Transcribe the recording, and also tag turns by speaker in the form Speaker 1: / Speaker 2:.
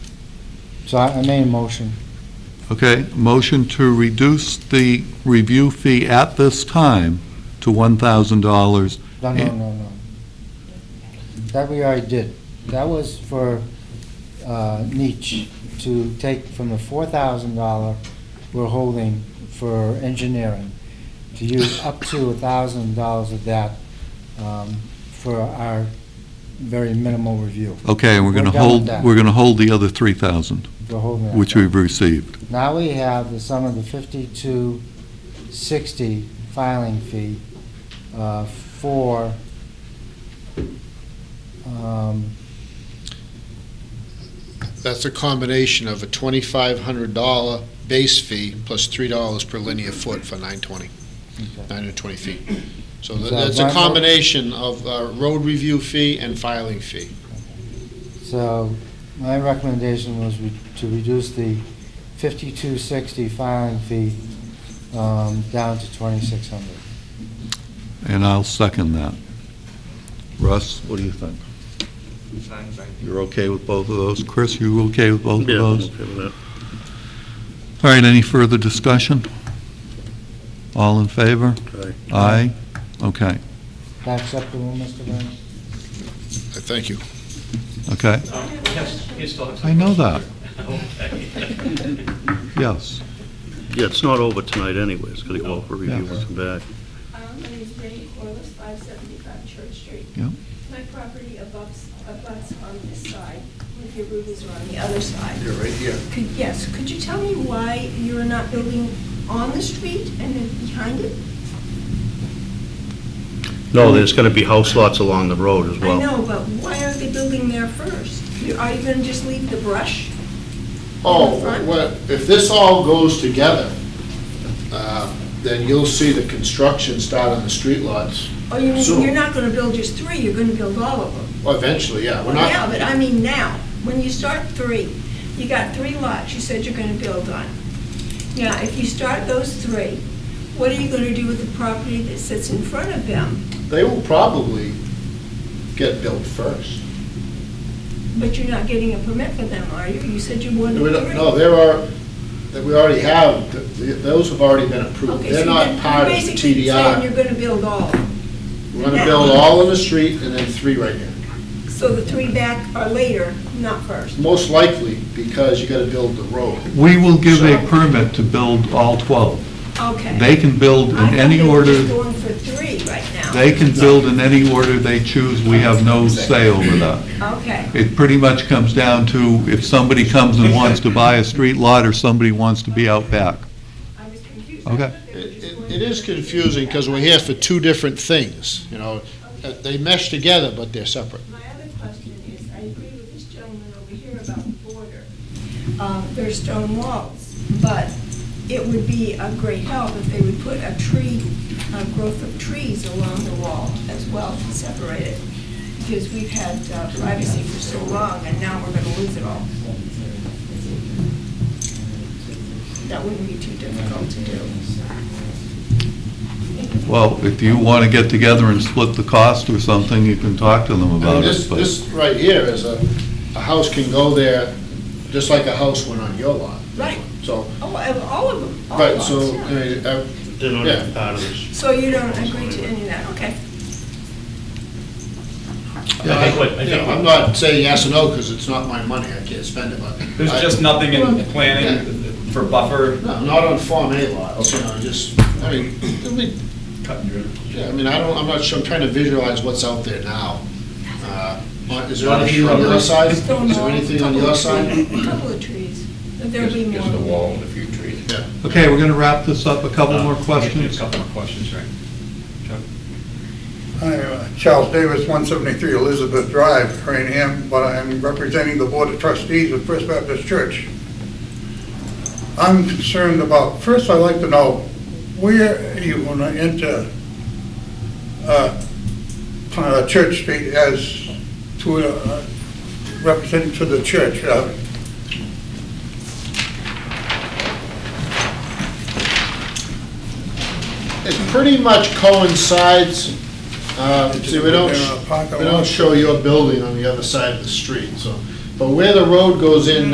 Speaker 1: So I I made a motion.
Speaker 2: Okay, motion to reduce the review fee at this time to $1,000.
Speaker 1: No, no,
Speaker 2: Yeah.
Speaker 1: no, no. That we already did. That was for uh, Nietzsche to take from the four thousand dollar we're holding for engineering, to use up to a thousand dollars of that um, for our very minimal review.
Speaker 2: Eh, Okay, and we're going to
Speaker 1: We're done with
Speaker 2: hold,
Speaker 1: that.
Speaker 2: we're going to hold the other 3,000,
Speaker 1: We're holding that
Speaker 2: which
Speaker 1: back.
Speaker 2: we've received.
Speaker 1: Now we have the sum of the fifty-two sixty filing fee uh, for, um,
Speaker 3: That's a combination of a twenty-five hundred dollar base fee plus three dollars per linear foot for nine twenty,
Speaker 1: okay.
Speaker 3: nine hundred twenty feet. So
Speaker 1: Is
Speaker 3: th-
Speaker 1: that
Speaker 3: that's a
Speaker 1: right?
Speaker 3: combination of uh, road review fee and filing fee.
Speaker 1: so my recommendation was re- to reduce the fifty-two sixty filing fee um, down to twenty-six hundred.
Speaker 2: And I'll second that. Russ, what do you think? You're okay with both of those? Chris, you okay with both of
Speaker 4: Yeah, I'm
Speaker 2: those?
Speaker 4: okay with that.
Speaker 2: All right, any further discussion? All in favor?
Speaker 4: Aye.
Speaker 2: Aye? Okay,
Speaker 1: Is that acceptable, Mr. Burns?
Speaker 3: Uh, Thank you.
Speaker 2: okay. I know that. Yes,
Speaker 4: Yeah, it's not over tonight anyway, it's gonna go out for review
Speaker 2: Yeah.
Speaker 4: and come back.
Speaker 5: Um, My name is Brandy Corliss, 575 Church Street.
Speaker 2: yeah,
Speaker 5: My property abuts, abuts on this side, with your rubies are on the other side.
Speaker 3: You're right here.
Speaker 5: Could, yes, could you tell me why you're not building on the street and then behind it?
Speaker 4: No, there's gonna be house lots along the road as
Speaker 5: I
Speaker 4: well.
Speaker 5: know, but why aren't they building there first? You- Are you gonna just leave the brush?
Speaker 3: Oh,
Speaker 5: In the front?
Speaker 3: well, if this all goes together, uh, then you'll see the construction start on the street lots
Speaker 5: Or you,
Speaker 3: So-
Speaker 5: you're not gonna build just three, you're gonna build all of them?
Speaker 3: Well, eventually, yeah. We're
Speaker 5: Yeah,
Speaker 3: not,
Speaker 5: but I mean now, when you start three, you got three lots you said you're gonna build on. Now, if you start those three, what are you gonna do with the property that sits in front of them?
Speaker 3: they will probably get built first.
Speaker 5: But you're not getting a permit for them, are you? You said you wanted
Speaker 3: No, we
Speaker 5: three.
Speaker 3: don't- No, there are, that we already have, th- th- those have already been approved.
Speaker 5: Okay, so
Speaker 3: They're not
Speaker 5: then
Speaker 3: part
Speaker 5: you're
Speaker 3: of
Speaker 5: basically saying
Speaker 3: TDI.
Speaker 5: you're gonna build all, of them.
Speaker 3: We're gonna build all in the street and then three right here.
Speaker 5: so the three back are later, not first.
Speaker 3: Most likely, because you gotta build the road.
Speaker 2: we will give a permit to build all 12.
Speaker 5: Okay.
Speaker 2: They can build
Speaker 5: I thought
Speaker 2: in any
Speaker 5: they were
Speaker 2: order,
Speaker 5: just going for three right now.
Speaker 2: they can build in any order they choose, we have no say over that.
Speaker 5: Okay,
Speaker 2: It pretty much comes down to if somebody comes and wants to buy a street lot or somebody wants to be out back.
Speaker 5: I was confused.
Speaker 2: Okay.
Speaker 3: It it- it is confusing, because we're here for two different things, you know. Uh, They mesh together, but they're separate.
Speaker 5: My other question is, I agree with this gentleman over here about the border. Um, There's stone walls, but it would be a great help if they would put a tree, a growth of trees along the wall as well to separate it, because we've had uh, privacy for so long, and now we're going to lose it all. That wouldn't be too difficult to do.
Speaker 2: Well, if you want to get together and split the cost or something, you can talk to them
Speaker 3: I mean,
Speaker 2: about
Speaker 3: This,
Speaker 2: it, but,
Speaker 3: this right here is a, a house can go there, just like a house went on your lot.
Speaker 5: Right,
Speaker 3: So,
Speaker 5: all all of them, all
Speaker 3: right,
Speaker 5: of
Speaker 3: so, I
Speaker 5: us, yeah.
Speaker 3: mean, uh, I-
Speaker 4: They're not
Speaker 3: Yeah.
Speaker 4: even part of this.
Speaker 5: So you don't agree to any of that, okay.
Speaker 3: I-
Speaker 6: think what- I
Speaker 3: you know,
Speaker 6: think
Speaker 3: I'm
Speaker 6: what-
Speaker 3: not saying yes or no, because it's not my money, I can't spend it, but.
Speaker 6: There's
Speaker 3: I-
Speaker 6: just nothing in planning for buffer.
Speaker 3: No, not on Form A lots, you know, just, I mean, it'll be- yeah, I mean, I don't, I'm not sure, I'm trying to visualize what's out there now. Uh, what- Is there
Speaker 6: Lot of
Speaker 3: anything on your
Speaker 6: shrubbery.
Speaker 3: side? Is
Speaker 5: Stone
Speaker 3: there
Speaker 5: wall,
Speaker 3: anything on your
Speaker 5: couple of
Speaker 3: side?
Speaker 5: trees- Couple of trees, but there'll
Speaker 7: Just
Speaker 5: be more.
Speaker 7: just a wall and a few trees.
Speaker 3: Yeah.
Speaker 2: okay, we're going to wrap this up, a couple more
Speaker 6: A
Speaker 2: questions?
Speaker 6: couple more questions, right. Chuck?
Speaker 8: Hi, uh, Charles Davis, 173 Elizabeth Drive, Rainham, but I'm representing the Board of Trustees of First Baptist Church. I'm concerned about, first I'd like to know, where you want to enter uh, uh, Church Street as to, uh, representing to the church? uh,
Speaker 3: It pretty much coincides, uh,
Speaker 8: It's
Speaker 3: see, we don't,
Speaker 8: in a parking
Speaker 3: we don't
Speaker 8: lot.
Speaker 3: show your building on the other side of the street, so. But where the road goes in